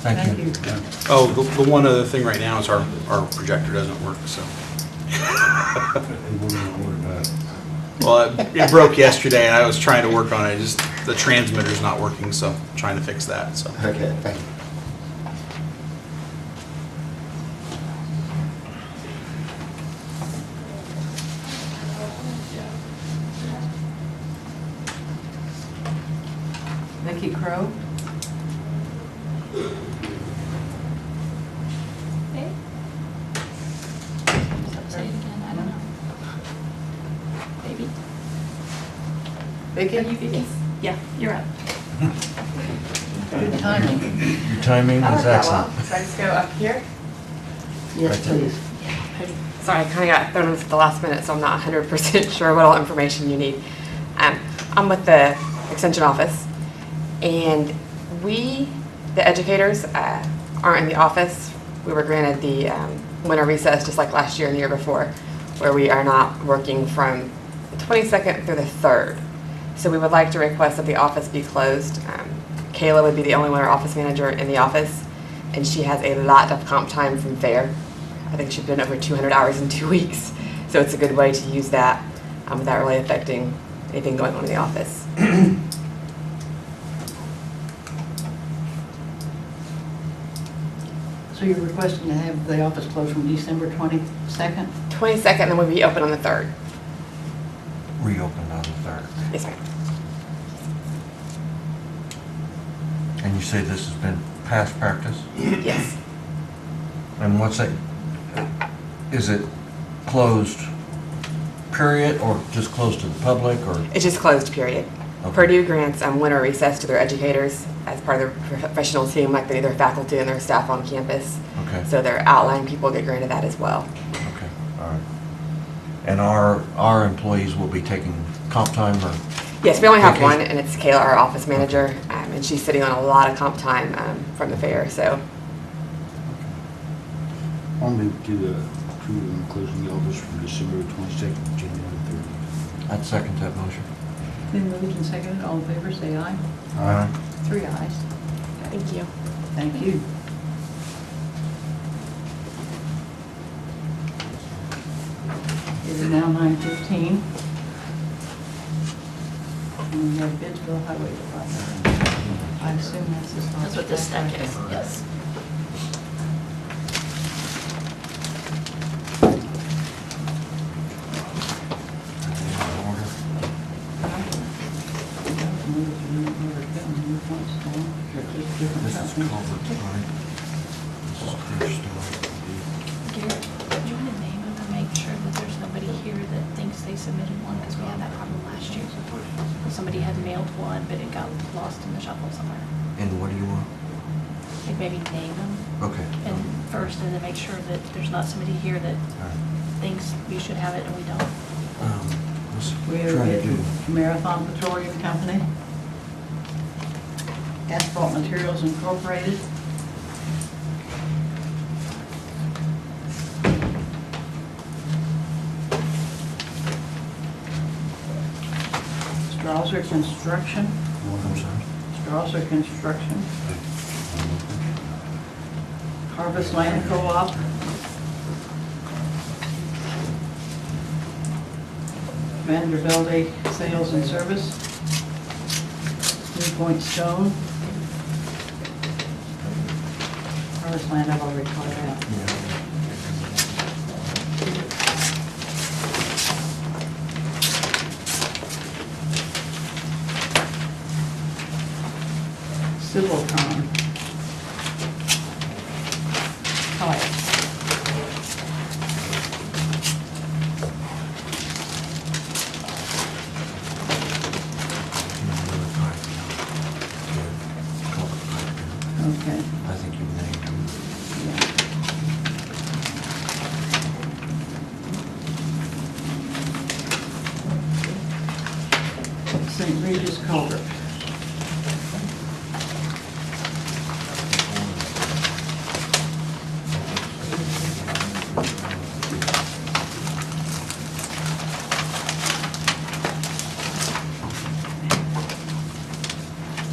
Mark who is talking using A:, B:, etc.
A: Thank you.
B: Yeah. Oh, the, the one other thing right now is our, our projector doesn't work, so. Well, it- it broke yesterday and I was trying to work on it, just the transmitter's not working, so trying to fix that, so.
C: Okay, thank you.
A: Vicki Crowe?
D: Say it again, I don't know. Maybe.
A: Vicki?
D: Are you Vicky? Yeah, you're up.
A: Good timing.
E: Your timing is excellent.
F: So I just go up here?
A: Yes, please.
F: Sorry, I kind of got thrown in at the last minute, so I'm not 100% sure what all information you need. Um, I'm with the Extension Office, and we, the educators, uh, aren't in the office. We were granted the um, winter recess, just like last year and the year before, where we are not working from the 22nd through the 3rd. So we would like to request that the office be closed. Um, Kayla would be the only winter office manager in the office, and she has a lot of comp time from FAIR. I think she's been over 200 hours in two weeks, so it's a good way to use that um, without really affecting anything going on in the office.
A: So you're requesting to have the office closed from December 22nd?
F: 22nd, then we'll be open on the 3rd.
E: Reopened on the 3rd.
F: Yes, ma'am.
E: And you say this has been past practice?
F: Yes.
E: And what's that, is it closed period or just closed to the public or?
F: It's just closed, period.
E: Okay.
F: Purdue grants um, winter recess to their educators as part of their professional team, like they do their faculty and their staff on campus.
E: Okay.
F: So their outline people get granted that as well.
E: Okay, all right. And our, our employees will be taking comp time or,
F: Yes, we only have
E: Okay.
F: one, and it's Kayla, our office manager, um, and she's sitting on a lot of comp time um, from the fair, so
G: I'll move to uh, approve and closing the office from December 22nd to January 30th.
E: I'd second that motion.
A: Been moved and seconded, all in favor, say aye. Three ayes.
F: thank you.
A: Thank you. It is now 9:15. And we have Bidsville Highway Department. I assume that's the
D: That's what this deck is, yes.
E: This is
A: This
E: Culvert Drive. This is Clear Story.
D: Garrett, do you want to name them and make sure that there's nobody here that thinks they submitted one? Because we had that problem last year. Somebody had mailed one, but it got lost in the shuffle somewhere.
E: And what do you want?
D: Like maybe name them
E: Okay.
D: and first, and then make sure that there's not somebody here that
E: Um, All right.
D: thinks we should have it and we don't.
E: Um, let's
A: We
E: try
A: are
E: to do.
A: with Marathon Petroleum Company, Asphalt Materials Incorporated. Strasser Construction,
E: I'm sorry.
A: Strasser Construction, Harvest Land Co-op, Vanderbilt Sales and Service, New Point Stone, Harvest Land, I've already called out. Civil Con. Hi.
E: Culvert Drive.
A: Okay.
E: I think you named